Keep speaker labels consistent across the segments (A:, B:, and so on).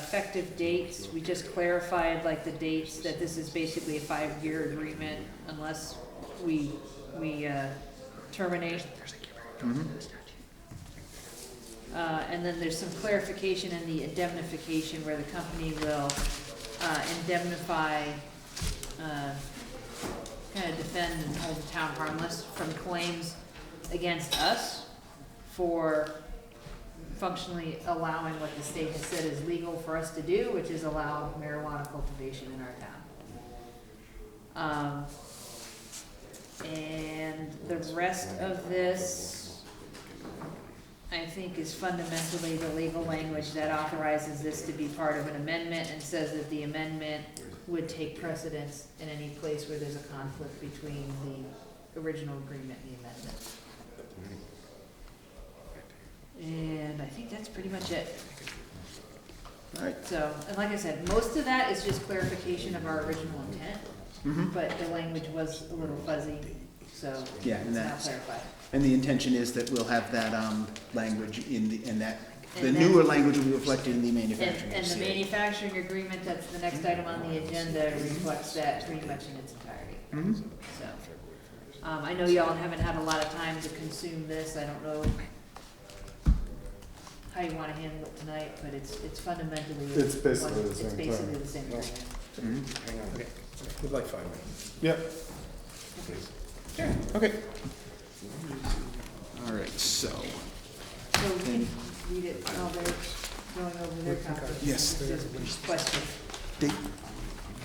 A: effective dates, we just clarified like the dates, that this is basically a five-year agreement unless we, we, uh, terminate. Uh, and then there's some clarification in the indemnification where the company will, uh, indemnify, uh, kind of defend and hold the town harmless from claims against us for functionally allowing what the state has said is legal for us to do, which is allow marijuana cultivation in our town. Um, and the rest of this, I think, is fundamentally the legal language that authorizes this to be part of an amendment and says that the amendment would take precedence in any place where there's a conflict between the original agreement and the amendment. And I think that's pretty much it.
B: Alright.
A: So, and like I said, most of that is just clarification of our original intent,
B: Mhm.
A: but the language was a little fuzzy, so
B: Yeah,
A: it's
B: and
A: not
B: that's-
A: clarified.
B: And the intention is that we'll have that, um, language in the, in that, the
A: And
B: newer
A: then-
B: language will be reflected in the
A: And,
B: manufacturing
A: and the
B: facility.
A: manufacturing agreement, that's the next item on the agenda, reflects that pretty much in its entirety,
B: Mhm.
A: so. Um, I know y'all haven't had a lot of time to consume this, I don't know how you wanna handle it tonight, but it's, it's fundamentally.
C: It's basically the
A: one-
C: same
A: It's basically
C: thing.
A: the same
C: Yeah.
A: agreement.
B: Mhm.
D: Hang on, we'd like five minutes.
C: Yep.
B: Okay. Alright, so,
A: So we can read it while they're going over their comments.
B: Yes.
A: Just Question.
B: Dave,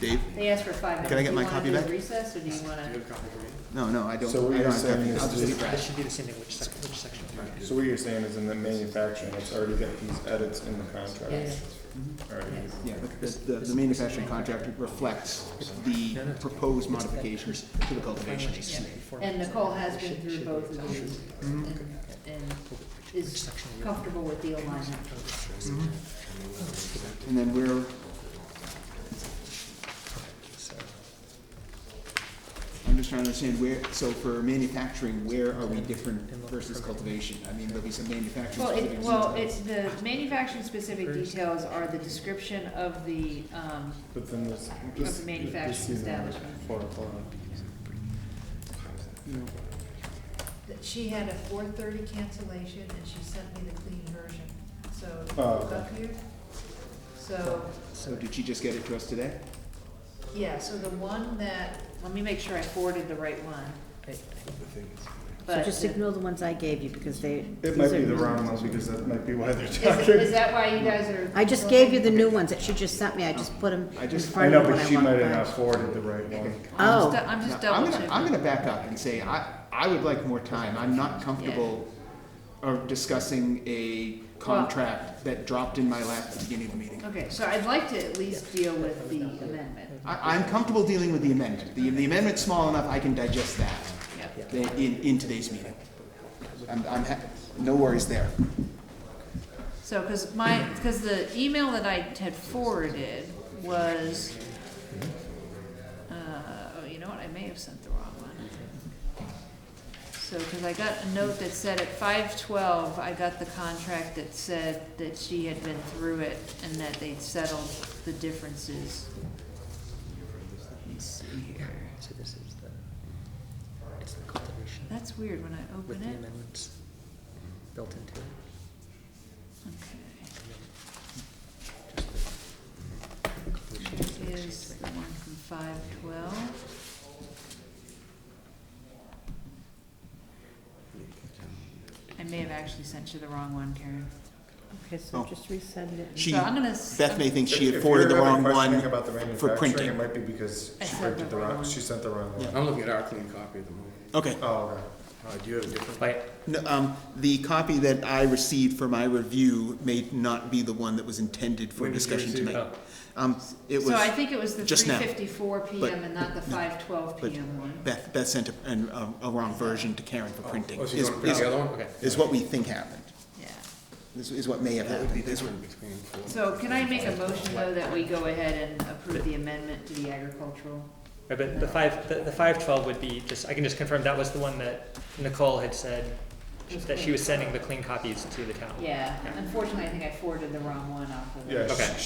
B: Dave,
A: They asked for five minutes.
B: Can I get my copy
A: Do you wanna
B: back?
A: do a recess, or do you wanna?
B: no, no, I don't,
C: So what
B: I
C: you're
B: don't have
C: saying
B: copy,
C: is
B: I'll just
C: this-
B: leave it.
D: This should be the same in which section, which section.
C: So what you're saying is in the manufacturing, it's already got these edits in the contract?
A: Yeah.
C: Already.
B: Yeah, the, the, the manufacturing contract reflects the proposed modifications to the cultivation.
A: And Nicole has been through both of these and, and is comfortable with the alignment.
B: And then we're, I'm just trying to understand where, so for manufacturing, where are we different versus cultivation? I mean, there'll be some manufacturing.
A: Well, it,
B: specifics.
A: well, it's the manufacturing specific details are the description of the, um,
C: But then this,
A: the
C: this.
A: manufacturing
C: this is at
A: establishment.
C: Four o'clock.
B: No.
A: that she had a four thirty cancellation and she sent me the clean version, so.
C: Oh, okay.
A: up here. So,
B: So did she just get it to us today?
A: yeah, so the one that, let me make sure I forwarded the right one.
E: So
A: But
E: just
A: the-
E: ignore the ones I gave you because they.
C: It
E: these
C: might
E: are-
C: be the wrong one because that might be why they're
A: is, is
C: talking.
A: that why you guys are?
E: I just gave you the new ones that she just sent me. I just put them
B: I
E: in
B: just-
C: I
E: front
C: know,
E: of what I want.
C: but she might have not
E: back.
C: forwarded the right one.
A: I'm just-
E: Oh,
A: I'm
B: No,
A: just double
B: I'm gonna, I'm
A: checking.
B: gonna back up and say, I, I would like more time. I'm not comfortable of discussing a contract that dropped in my lap at the beginning of the meeting.
A: Okay, so I'd like to at least deal with the amendment.
B: I, I'm comfortable dealing with the amendment. The, the amendment's small enough, I can digest that
A: Yep.
B: i- in, in today's meeting. I'm, I'm, ha- no worries there.
A: So, because my, because the email that I had forwarded was, uh, oh, you know what, I may have sent the wrong one. So, because I got a note that said at five twelve, I got the contract that said that she had been through it and that they'd settled the differences. Let me see here.
D: So this is the, it's the cultivation
A: That's weird when I
D: with
A: open
D: the
A: it.
D: amendments built into it.
A: Okay.
D: Cultivation
A: is the one from five twelve. I may have actually sent you the wrong one, Karen.
E: okay,
C: Oh.
E: so just resend it.
B: She,
A: So I'm gonna. s-
B: Beth may think she
C: If-
B: had forwarded the wrong
C: If you're having questioning
B: one.
C: about the
B: for
C: manufacturing,
B: printing.
C: it might be because
A: I
C: she
A: sent
C: printed
A: the
C: the
A: wrong
C: wrong,
A: one.
C: she sent the wrong one.
F: I'm looking at our clean copy of the movie.
B: Okay.
C: Oh, okay.
F: Uh, do you have a different?
D: But
B: No, um, the copy that I received for my review may not be the one that was intended for
F: When did you
B: discussion
F: receive Oh.
B: tonight. Um, it was.
A: So I think it was the
B: just
A: three
B: now,
A: fifty-four
B: but-
A: PM and not the five twelve
B: but-
A: PM one.
B: Beth, Beth sent a, an, a, a wrong version to Karen for printing.
F: Oh, so you
B: is-
F: want to print
B: is-
F: the other one? Okay.
B: Is what we think happened,
A: Yeah.
B: is, is what may have
F: That would be
B: happened.
F: this one between four.
A: So can I make a motion though that we go ahead and approve the amendment to the agricultural?
G: Right, but the five, the, the five twelve would be just, I can just confirm that was the one that Nicole had said, that she was sending the clean copies to the town.
A: Yeah, unfortunately, I think I forwarded the wrong one off of. the-
C: Yeah,
G: Okay.